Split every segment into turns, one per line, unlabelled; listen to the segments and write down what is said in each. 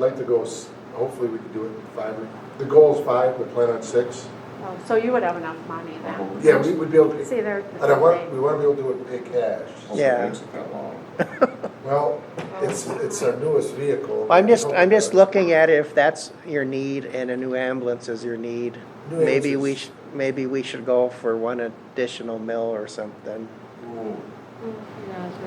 I'd like to go, s- hopefully we could do it in five, the goal is five, we plan on six.
Oh, So you would have enough money then?
Yeah, we would be able to,
See, there.
and I want, we wanna be able to do it and pay cash.
Yeah.
Well, it's, it's our newest vehicle.
I'm just, I'm just looking at it, if that's your need and a new ambulance is your need,
New
maybe we
ambulances.
should, maybe we should go for one additional mill or something.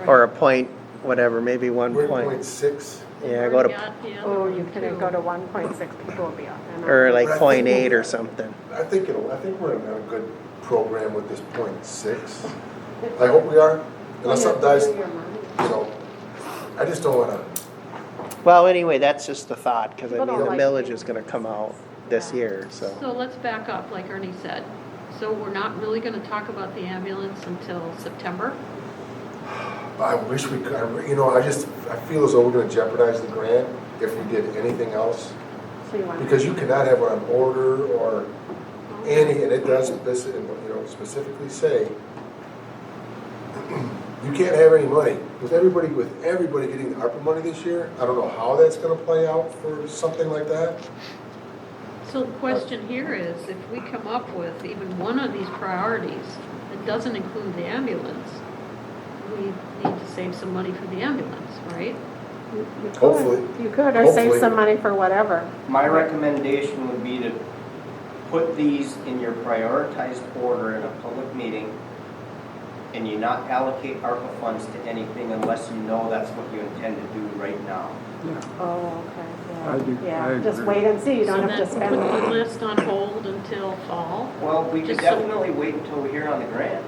Or a point, whatever, maybe one
We're at point
point.
six.
Yeah, go
Already
to,
on hand,
Oh, you
one,
couldn't
two.
go to one point six, people would be off. and on.
or like
Right.
point eight or something.
I think it'll, I think we're in a good program with this point six. I hope we are, unless something dies, you know, I just don't wanna,
Well, anyway, that's just the thought, cause I
People
mean,
don't
the
like
millage
things.
is gonna come out this
Yeah.
year, so.
So let's back up, like Ernie said. So we're not really gonna talk about the ambulance until September?
I wish we could, I re- you know, I just, I feel as though we're gonna jeopardize the grant if we did anything else.
So you want,
Because you cannot have on order or any, and it does, this, you know, specifically say, you can't have any money. With everybody, with everybody getting the ARPA money this year, I don't know how that's gonna play out for something like that.
So the question here is, if we come up with even one of these priorities that doesn't include the ambulance, we need to save some money for the ambulance, right?
you you could.
Hopefully.
You could, or save
Hopefully.
some money for whatever.
My recommendation would be to put these in your prioritized order in a public meeting, and you not allocate ARPA funds to anything unless you know that's what you intend to do right now.
Oh, okay, yeah.
I do-
Yeah,
I
Just
agree.
wait and see, you don't
So
have to
then
spend.
Put the list on hold until fall,
Well, we could
Just so-
definitely wait until we hear on the grant.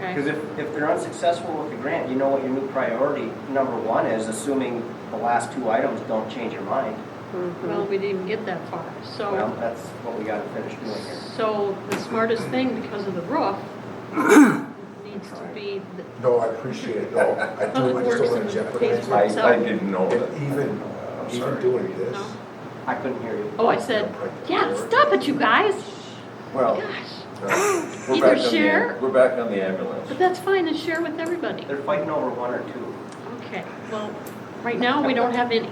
Because
okay?
if, if they're unsuccessful with the grant, you know what your new priority number one is, assuming the last two items don't change your mind.
Mm-hmm.
Well, we didn't even get that far, so.
Well, that's what we gotta finish doing here.
So the smartest thing, because of the roof, needs to be the
No, I appreciate it, no, I do, I
public
just
works
don't wanna
and the
jeopardize.
pays
it.
for itself.
didn't know
And even, even doing this.
No.
I couldn't hear you.
Oh, I said, yeah, stop it, you guys.
Well,
Gosh,
no,
we're
either
back on the-
share-
We're back on the
but
ambulance.
that's fine, and share with everybody.
They're fighting over one or two.
Okay, well, right now, we don't have any.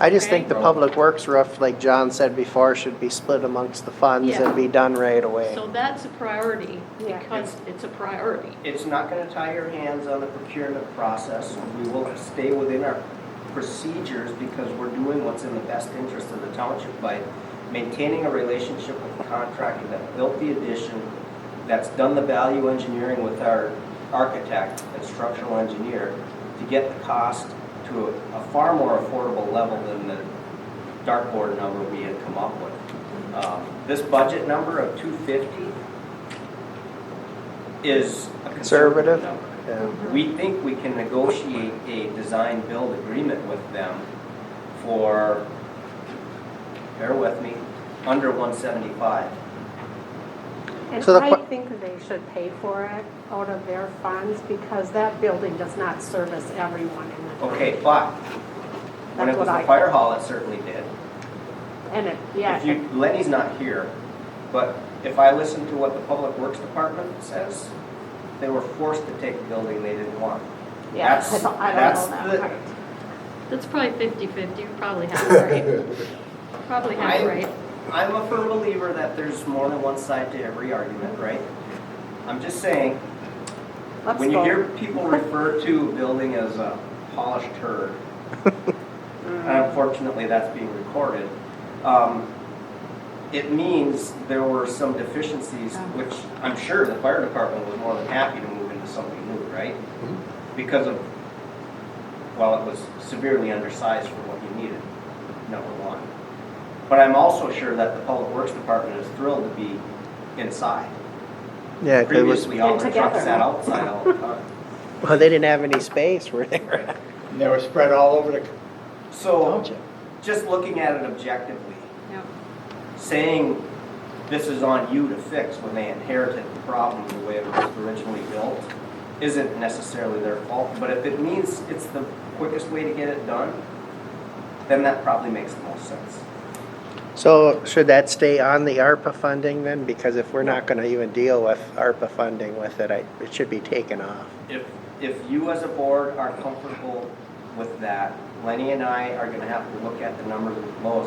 I just think
Okay.
the public works roof, like John said before, should be split amongst the funds
Yeah.
and be done right away.
So that's a priority,
Yeah.
because it's a priority.
It's not gonna tie your hands on the procurement process. We will stay within our procedures because we're doing what's in the best interest of the township by maintaining a relationship with the contractor that built the addition, that's done the value engineering with our architect and structural engineer to get the cost to a a far more affordable level than the dartboard number we had come up with. Um, This budget number of 250 is a
Conservative?
conservative number.
Yeah.
We think we can negotiate a design-build agreement with them for, bear with me, under 175.
And
So the
I
que-
think they should pay for it out of their funds, because that building does not service everyone in the town.
Okay, but when it
That's
was
what I-
the fire hall, it certainly did.
And it, yeah,
If you, Lenny's not here, but if I listen to what the Public Works Department says, they were forced to take a building they didn't want.
yeah, I
that's-
don't, I don't know
that's the-
that part.
That's probably 50/50, You're probably half right, probably half
I-
right.
I'm a firm believer that there's more than one side to every argument, right? I'm just saying,
Let's
When you
go.
hear people refer to a building as a polished turd, and unfortunately that's being recorded, um, it means there were some deficiencies, which I'm sure the fire department was more than happy to move into something new, right?
Mm-hmm.
Because of, well, it was severely undersized for what you needed, number one. But I'm also sure that the public works department is thrilled to be inside.
Yeah, 'cause it was,
Previously, all the
And
trucks
together.
sat outside all the time.
well, they didn't have any space, were they?
And they were spread all over the
So,
Township.
just looking at it objectively,
Yeah.
saying this is on you to fix when they inherited the problem the way it was originally built isn't necessarily their fault, but if it means it's the quickest way to get it done, then that probably makes the most sense.
So should that stay on the ARPA funding then? Because if we're not gonna even deal with ARPA funding with it, I, it should be taken off.
If, if you as a board are comfortable with that, Lenny and I are gonna have to look at the numbers of the lowest